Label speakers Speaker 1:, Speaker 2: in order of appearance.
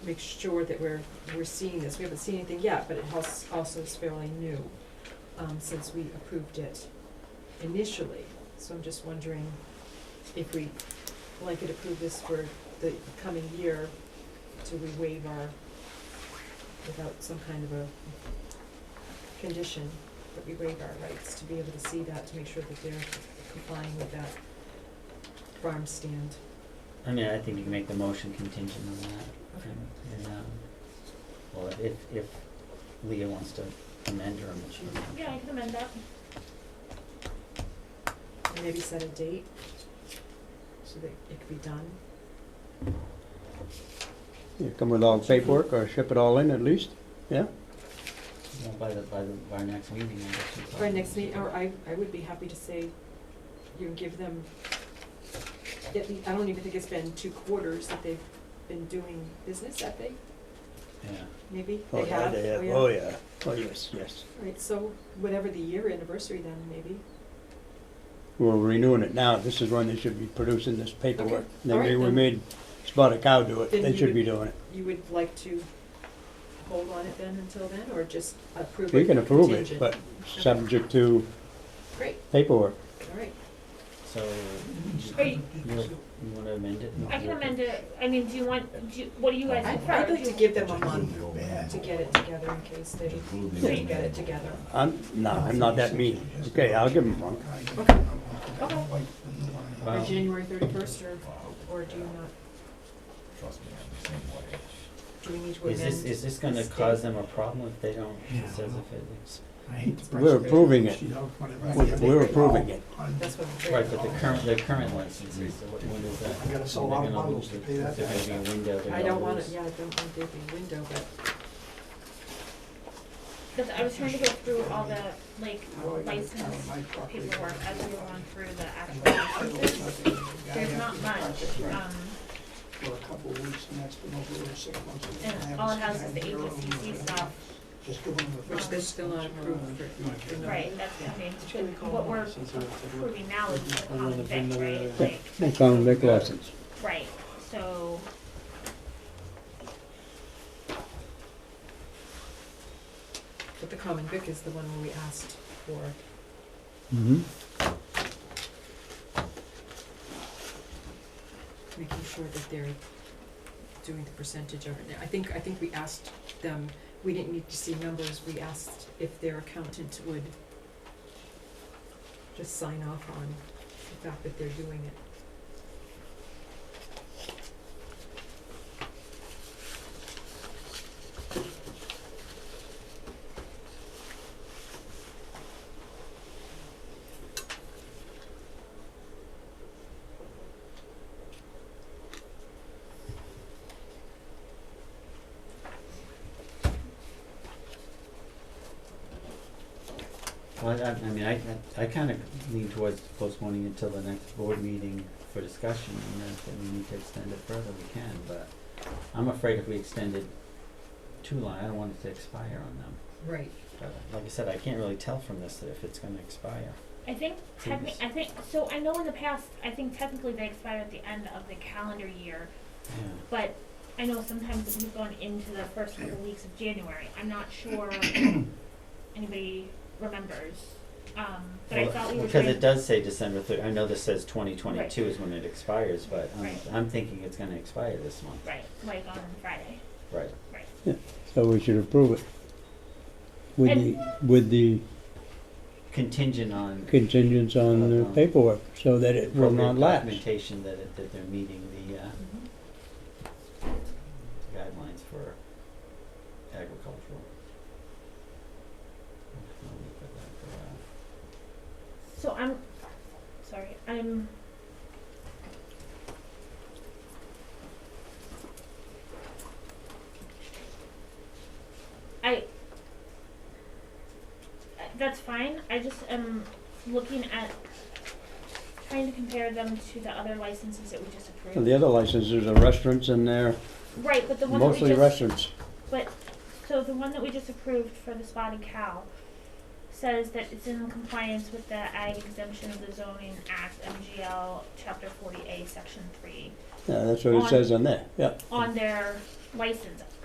Speaker 1: make sure that we're, we're seeing this. We haven't seen anything yet, but it has, also is fairly new, um, since we approved it initially. So I'm just wondering if we blanket approve this for the coming year, do we waive our, without some kind of a condition, that we waive our rights to be able to see that, to make sure that they're complying with that farm stand.
Speaker 2: I mean, I think you can make the motion contingent on that. And, and, um, well, if, if Leah wants to amend her motion.
Speaker 3: Yeah, I can amend that.
Speaker 1: And maybe set a date so that it could be done.
Speaker 4: You come with all the paperwork or ship it all in at least, yeah?
Speaker 2: Well, by the, by the, by our next meeting, I guess. we
Speaker 1: Or
Speaker 2: probably-
Speaker 1: next meeting, or I, I would be happy to say, you know, give them, at lea- I don't even think it's been two quarters that they've been doing business, have they?
Speaker 2: Yeah.
Speaker 1: Maybe,
Speaker 4: Oh
Speaker 1: they have, oh yeah.
Speaker 4: Oh, yeah, oh, yes, yes.
Speaker 1: Right, so whatever the year anniversary then, maybe.
Speaker 4: We're renewing it now, this is when they should be producing this paperwork.
Speaker 1: Okay, all right,
Speaker 4: Maybe we
Speaker 1: then.
Speaker 4: made Spotted Cow do it,
Speaker 1: Then
Speaker 4: they
Speaker 1: you
Speaker 4: should
Speaker 1: would-
Speaker 4: be doing it.
Speaker 1: You would like to hold on it then until then, or just approve it?
Speaker 4: We can approve it,
Speaker 1: contingent?
Speaker 4: but subject to
Speaker 1: Great,
Speaker 4: paperwork.
Speaker 1: all right.
Speaker 2: So,
Speaker 3: Are you-
Speaker 2: you, you wanna amend it?
Speaker 3: I can amend it, I mean, do you want, do, you- what do you guys
Speaker 1: I'd-
Speaker 3: prefer?
Speaker 1: I'd like
Speaker 3: Do
Speaker 1: to
Speaker 3: you-
Speaker 1: give them a month to get it together in case they can't get it together.
Speaker 4: I'm, no, I'm not that mean. Okay, I'll give them one.
Speaker 1: Okay,
Speaker 3: Okay,
Speaker 1: or
Speaker 2: Well,
Speaker 1: January thirty-first, or, or do you not, do we need to
Speaker 2: Is this,
Speaker 1: amend?
Speaker 2: is this gonna
Speaker 1: the
Speaker 2: cause
Speaker 1: state.
Speaker 2: them a problem if they don't,
Speaker 5: Yeah.
Speaker 2: it says if it is?
Speaker 4: We're approving it. We're- We're approving it.
Speaker 1: That's what I'm
Speaker 2: Right,
Speaker 1: saying.
Speaker 2: but the current, the current licenses, so what- when is that?
Speaker 5: I gotta sell a
Speaker 2: when they're
Speaker 5: lot of
Speaker 2: gonna lose
Speaker 5: bundles to
Speaker 2: it?
Speaker 5: pay that
Speaker 2: Is there gonna be a window they're
Speaker 1: I don't
Speaker 2: gonna
Speaker 1: want it,
Speaker 2: lose?
Speaker 1: yeah, I don't want there to be a window, but,
Speaker 3: cause I was trying to go through all the, like, license paperwork as we were going through the actual licenses. There's not much, um,
Speaker 5: uh, For a couple of weeks, and that's been over there six months.
Speaker 3: and all it has is the ABCC stuff,
Speaker 5: Just give them the
Speaker 1: which
Speaker 3: Which
Speaker 1: they're
Speaker 3: they're
Speaker 1: still not approved for.
Speaker 3: right, that's coming, but what we're approving now is the common thing, right,
Speaker 4: Yeah,
Speaker 3: like,
Speaker 4: They found liquor license.
Speaker 3: right, so.
Speaker 1: But the common vic is the one where we asked for,
Speaker 4: Mm-hmm.
Speaker 1: making sure that they're doing the percentage of it. I think, I think we asked them, we didn't need to see numbers, we asked if their accountant would just sign off on the fact that they're doing it.
Speaker 2: Well, I, I mean, I, I kinda lean towards postponing until the next board meeting for discussion, and then if we need to extend it further, we can, but I'm afraid if we extended too long, I don't want it to expire on them,
Speaker 1: Right.
Speaker 2: but like I said, I can't really tell from this if it's gonna expire.
Speaker 3: I think
Speaker 2: Yes.
Speaker 3: technically, I think, so I know in the past, I think technically they expire at the end of the calendar year,
Speaker 2: Yeah,
Speaker 3: but I know sometimes we've gone into the first couple weeks of January. I'm not sure anybody remembers. Um, but I
Speaker 2: Well,
Speaker 3: thought we were
Speaker 2: because
Speaker 3: trying.
Speaker 2: it does say December thir- I know this says twenty twenty-two is when it expires, but I'm,
Speaker 3: Right.
Speaker 2: I'm thinking it's gonna expire this month,
Speaker 3: Right, like on Friday.
Speaker 2: right?
Speaker 4: So we should approve it. With
Speaker 3: And-
Speaker 4: the, with the
Speaker 2: Contingent on
Speaker 4: contingents on the paperwork, so that it will
Speaker 2: appropriate
Speaker 4: not lapse.
Speaker 2: documentation that it, that they're meeting the, uh, guidelines for agricultural. I'll leave it at that uh, for now.
Speaker 3: So I'm, sorry, I'm. I. uh, That's fine, I just am looking at, trying to compare them to the other licenses that we just
Speaker 4: And
Speaker 3: approved.
Speaker 4: the other licenses are restaurants and they're
Speaker 3: Right, but the one that we just.
Speaker 4: mostly restaurants.
Speaker 3: So the one that we just approved for the spotted cow says that it's in compliance with the ag exemption of the zoning act, MGL, chapter forty A, section three,
Speaker 4: Yeah, that's what it
Speaker 3: On-
Speaker 4: says on there, yeah.
Speaker 3: on their license.